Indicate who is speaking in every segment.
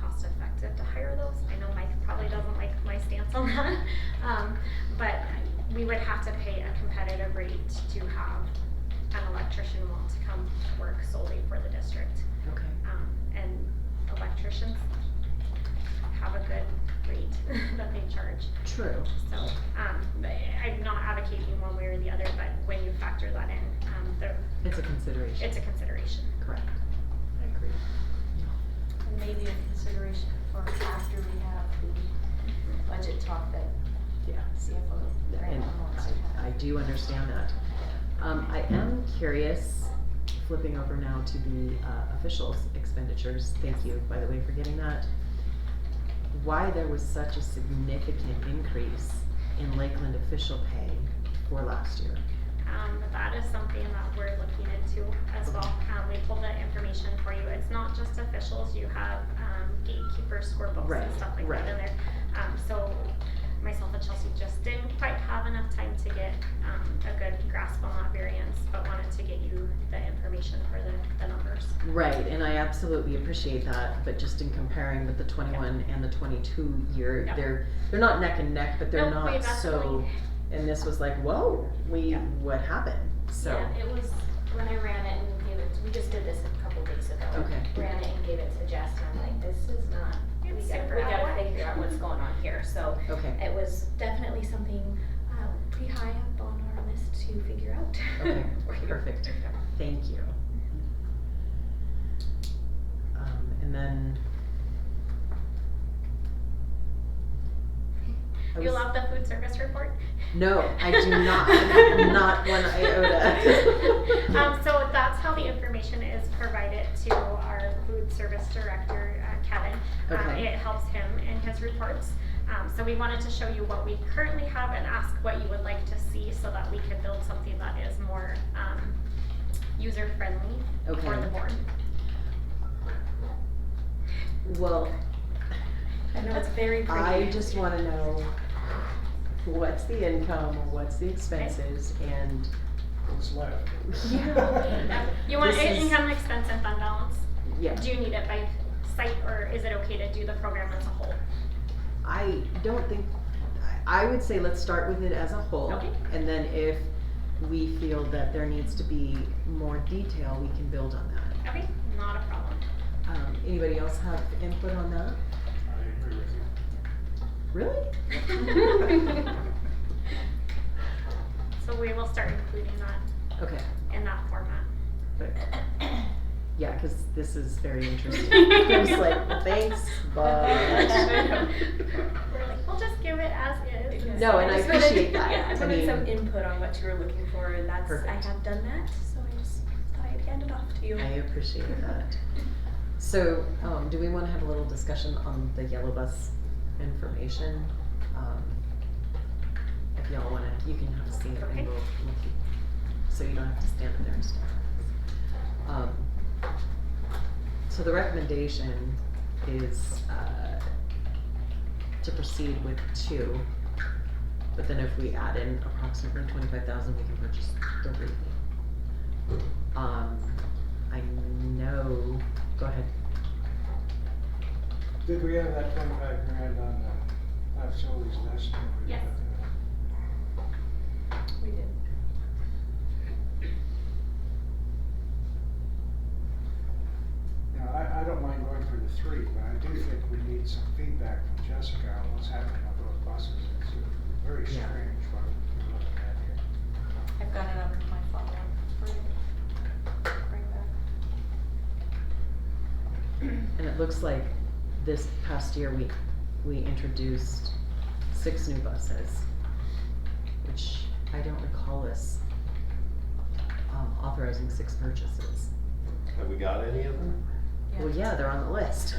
Speaker 1: cost effective to hire those. I know Mike probably doesn't like my stance on that, um, but we would have to pay a competitive rate to have an electrician want to come work solely for the district.
Speaker 2: Okay.
Speaker 1: Um, and electricians have a good rate that they charge.
Speaker 2: True.
Speaker 1: So, um, but I'm not advocating one way or the other, but when you factor that in, um, there,
Speaker 2: It's a consideration.
Speaker 1: it's a consideration.
Speaker 2: Correct.
Speaker 3: I agree.
Speaker 4: And maybe a consideration for after we have the budget talk that
Speaker 2: Yeah.
Speaker 4: CFO
Speaker 2: And
Speaker 4: Graham wants to
Speaker 2: I, I
Speaker 4: have.
Speaker 2: do understand that. Um, I am curious, flipping over now to the uh, officials expenditures, thank you, by the way, for getting that. Why there was such a significant increase in Lakeland official pay for last year?
Speaker 1: Um, but that is something that we're looking into as well. Um, we pulled that information for you. It's not just officials, you have, um, gatekeepers, scorebooks
Speaker 2: Right,
Speaker 1: and stuff like that in there. Um, so myself and Chelsea just didn't quite have enough time to get, um, a good grasp on that variance, but wanted to get you the information for the, the numbers.
Speaker 2: Right, and I absolutely appreciate that, but just in comparing with the twenty-one and the twenty-two year,
Speaker 1: Yeah.
Speaker 2: they're, they're not neck and neck, but they're
Speaker 1: Nope, we
Speaker 2: not so,
Speaker 1: definitely-
Speaker 2: and this was like, whoa, we,
Speaker 1: Yeah.
Speaker 2: what happened? So,
Speaker 3: Yeah, it was, when I ran it and gave it, we just did this a couple weeks ago.
Speaker 2: okay,
Speaker 3: Ran it and gave it to Jess and I'm like, this is not, we
Speaker 1: It's
Speaker 3: gotta,
Speaker 1: super
Speaker 3: we
Speaker 1: out of
Speaker 3: gotta
Speaker 1: whack.
Speaker 3: figure out what's going on here, so.
Speaker 2: okay,
Speaker 3: It was definitely something, uh, pretty high up on our list to figure out.
Speaker 2: Okay, perfect. thank you. Um, and then. I
Speaker 1: You
Speaker 2: was-
Speaker 1: love the food service report?
Speaker 2: No, I do not, not one iota.
Speaker 1: Um, so that's how the information is provided to our food service director, uh, Kevin. Um,
Speaker 2: Okay.
Speaker 1: It helps him in his reports. Um, so we wanted to show you what we currently have and ask what you would like to see so that we can build something that is more, um, user-friendly for
Speaker 2: Okay.
Speaker 1: the board.
Speaker 2: Well,
Speaker 4: I know it's very pretty.
Speaker 2: I just wanna know what's the income, what's the expenses, and,
Speaker 5: What's left?
Speaker 2: Yeah.
Speaker 1: You want
Speaker 2: This is-
Speaker 1: income, and expense, and fund balance?
Speaker 2: yeah,
Speaker 1: Do you need it by site, or is it okay to do the program as a whole?
Speaker 2: I don't think, I, I would say let's start with it as a whole.
Speaker 1: Okay.
Speaker 2: And then if we feel that there needs to be more detail, we can build on that.
Speaker 1: Okay, not a problem.
Speaker 2: Um, anybody else have input on that?
Speaker 5: I agree with you.
Speaker 2: Really?
Speaker 1: So we will start including that
Speaker 2: Okay,
Speaker 1: in that format.
Speaker 2: but, yeah, cause this is very interesting. I'm just like, thanks, but.
Speaker 1: We're like, we'll just give it as is.
Speaker 3: Because
Speaker 2: No, and I
Speaker 3: just wanted-
Speaker 2: appreciate that.
Speaker 3: Yeah, I
Speaker 2: I
Speaker 3: wanted some
Speaker 2: mean-
Speaker 3: input on what you were looking for, and that's, I
Speaker 2: Perfect.
Speaker 3: have done that, so I just thought I'd hand it off to you.
Speaker 2: I appreciate that. So, um, do we wanna have a little discussion on the yellow bus information? Um, If y'all wanna, you can have a seat and
Speaker 1: Okay.
Speaker 2: we'll, we'll keep, so you don't have to stand up there and stuff. Um, so the recommendation is, uh, to proceed with two. But then if we add in approximately twenty-five thousand, we can purchase three. Um, I know, go ahead.
Speaker 5: Did we have that twenty-five grand on the, that facilities last year? We
Speaker 1: Yes.
Speaker 5: had
Speaker 3: We did.
Speaker 5: that. Now, I, I don't mind going for the three, but I do think we need some feedback from Jessica on what's happening with those buses. It's uh, very
Speaker 2: Yeah.
Speaker 5: strange what we're looking at here.
Speaker 4: I've got it on my follow-up for bring back.
Speaker 2: And it looks like this past year, we, we introduced six new buses, which I don't recall us um, authorizing six purchases.
Speaker 6: Have we got any of them?
Speaker 2: Well, yeah, they're on the list.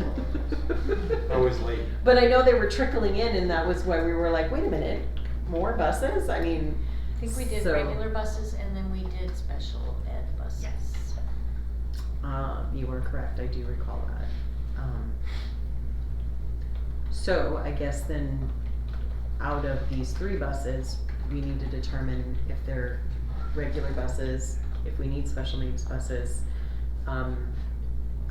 Speaker 6: Always late.
Speaker 2: But I know they were trickling in, and that was why we were like, wait a minute, more buses? I mean,
Speaker 4: I think we did
Speaker 2: So-
Speaker 4: regular buses and then we did special ed buses.
Speaker 1: Yes.
Speaker 2: Um, you are correct, I do recall that. Um, so I guess then, out of these three buses, we need to determine if they're regular buses, if we need special needs buses. Um,